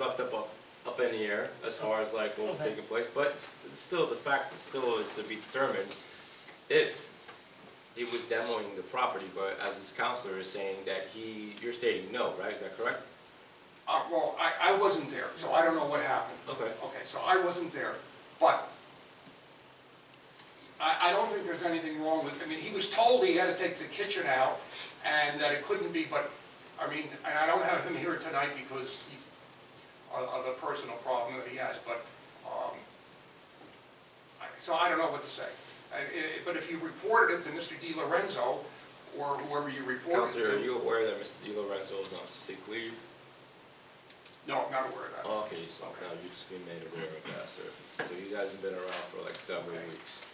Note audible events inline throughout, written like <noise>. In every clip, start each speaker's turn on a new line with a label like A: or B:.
A: left up, up up in the air as far as like what was
B: Okay.
A: taking place, but it's, it's still, the fact is still is to be determined if he was demoing the property, but as his counselor is saying that he, you're stating no, right? Is that correct?
C: Uh, well, I, I wasn't there, so I don't know what happened.
A: Okay.
C: Okay, so I wasn't there, but I, I don't think there's anything wrong with, I mean, he was told he had to take the kitchen out and that it couldn't be, but, I mean, and I don't have him here tonight because he's, of, of a personal problem that he has, but, um, I- so I don't know what to say. I- I- but if you reported it to Mr. Di Lorenzo or whoever you reported it
A: Counselor,
C: to.
A: are you aware that Mr. Di Lorenzo is on sick leave?
C: No, I'm not aware of that.
A: Oh, Okay, so now you just been made aware of that, sir. So you guys have been around for like several
C: Okay.
A: weeks.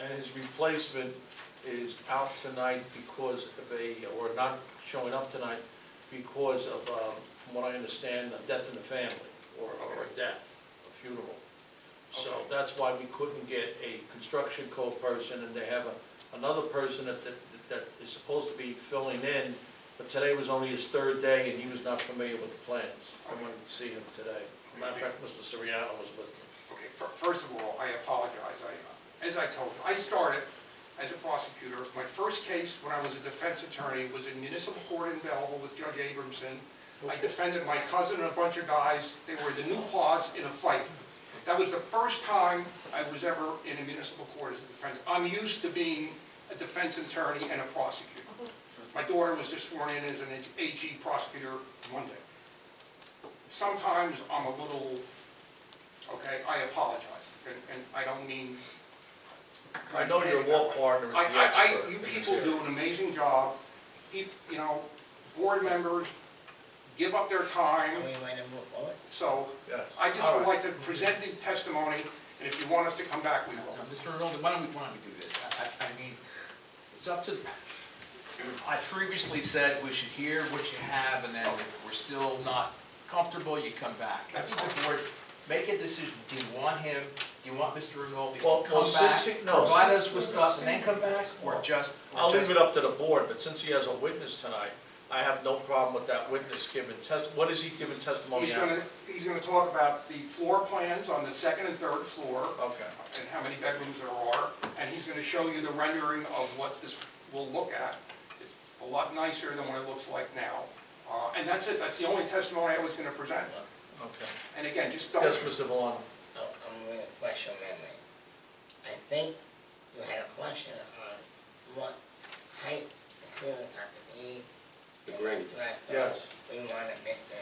B: And his replacement is out tonight because of a, or not showing up tonight because of, um, from what I understand, a death in the family, or, or a death, a funeral. So
C: Okay.
B: that's why we couldn't get a construction code person, and they have a- another person that, that, that is supposed to be filling in, but today was only his third day, and he was not familiar with the plans. I went to see him today. Matter of fact, Mr. Soriano was with me.
C: Okay, fir- first of all, I apologize. I, as I told you, I started as a prosecutor. My first case, when I was a defense attorney, was in municipal court in Belleville with Judge Abramson. I defended my cousin and a bunch of guys. They were the new paws in a fight. That was the first time I was ever in a municipal court as a defense. I'm used to being a defense attorney and a prosecutor. My daughter was just sworn in as an AG prosecutor Monday. Sometimes I'm a little Okay, I apologize, and, and I don't mean.
B: I know your law partner is the
C: I, I,
B: expert
C: I, you
B: in this
C: people do an amazing job, you, you know, board members give up their time,
D: And we want to move forward.
C: so.
B: Yes.
C: I just
B: All
C: would
B: right.
C: like to present the testimony, and if you want us to come back, we will.
E: Mr. Rinaldi, why don't we, why don't we do this? I, I, I mean, it's up to, I previously said we should hear what you have, and then if we're still not comfortable, you come back. I think the board, make a decision, do you want him, do you want Mr. Rinaldi to
B: Well, well,
E: come back?
B: since he- no,
E: Provide
B: since-
E: us with stuff and then come back, or just? or
B: I'll leave
E: just-
B: it up to the board, but since he has a witness tonight, I have no problem with that witness giving test, what is he giving testimony
C: He's gonna,
B: after?
C: he's gonna talk about the floor plans on the second and third floor.
B: Okay.
C: And how many bedrooms there are, and he's gonna show you the rendering of what this will look at. It's a lot nicer than what it looks like now. Uh, and that's it, that's the only testimony I was gonna present.
B: Okay.
C: And again, just don't.
B: Yes, Mr. Valano?
D: Oh, I'm going to flash your memory. I think you had a question on what height the ceilings have to be.
A: The
D: and
A: grades.
D: that's what I thought We wanted Mr.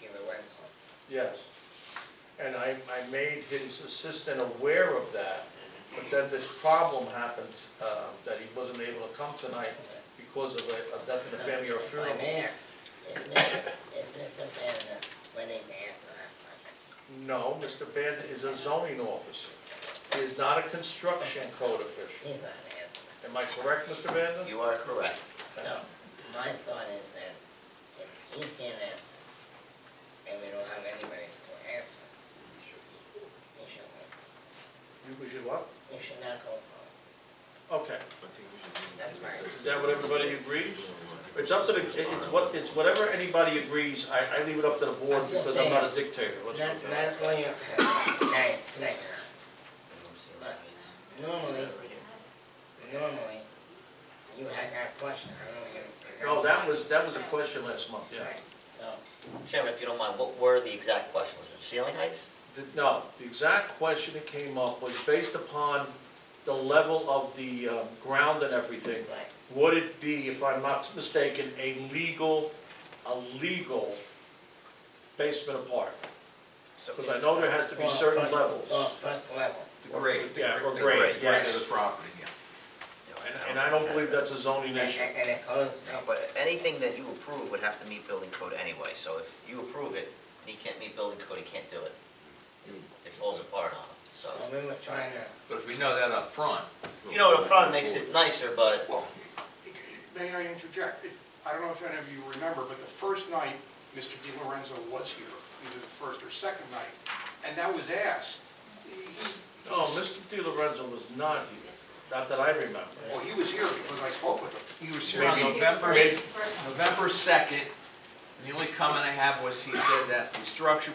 D: Di Lorenzo.
B: Yes. And I, I made his assistant aware of that, but then this problem happened, uh, that he wasn't able to come tonight because of a, a death in the family
D: So,
B: or
D: if
B: funeral.
D: I may ask, is Mr. is Mr. Van willing to answer that question?
B: No, Mr. Bandon is a zoning officer. He is not a construction code official.
D: He's not answering.
B: Am I correct, Mr. Bandon?
F: You are correct.
D: So, my thought is that if he can't answer, and we don't have anybody to answer, we should,
B: You, we should what?
D: we should not go forward.
B: Okay.
D: That's my.
B: Is that what everybody agrees? It's up to the, it- it's what, it's whatever anybody agrees, I, I leave it up to the board because I'm not a dictator. Let's-
D: Not, not when you're, tonight, tonight, <coughs> you're not. normally, normally, you had that question, I don't know if you. presented
B: No, Oh, that was, that was a question last month, yeah.
D: Right, So,
F: Chairman, if you don't mind, what were the exact questions? Was it ceiling heights?
B: The- No, the exact question that came up was based upon the level of the um, ground and everything.
D: right,
B: Would it be, if I'm not mistaken, a legal, a legal basement apartment? Because I know there has to be
D: Well,
B: certain
D: first-
B: levels.
D: well, first level,
E: The grade.
B: Yeah, or
E: the
B: grade,
E: The grade
B: yes.
E: of the property, yeah.
B: And- And I don't believe that's a zoning
D: and,
B: issue.
D: and it goes,
F: No, but anything that you approve would have to meet building code anyway, so if you approve it, and he can't meet building code, he can't do it. It falls apart on him, so.
D: well, we were trying to,
E: But if we know that up front,
F: You know, the front makes it nicer, but
C: Well, may I interject? If- I don't know if any of you remember, but the first night Mr. Di Lorenzo was here, either the first or second night, and that was asked. He- he-
B: No, Mr. Di Lorenzo Oh, was not here, not that I remember.
C: Well, he was here because I spoke with him.
E: he was here on
B: Maybe-
E: November,
B: maybe-
E: November second, And the only comment I have was he said that the structure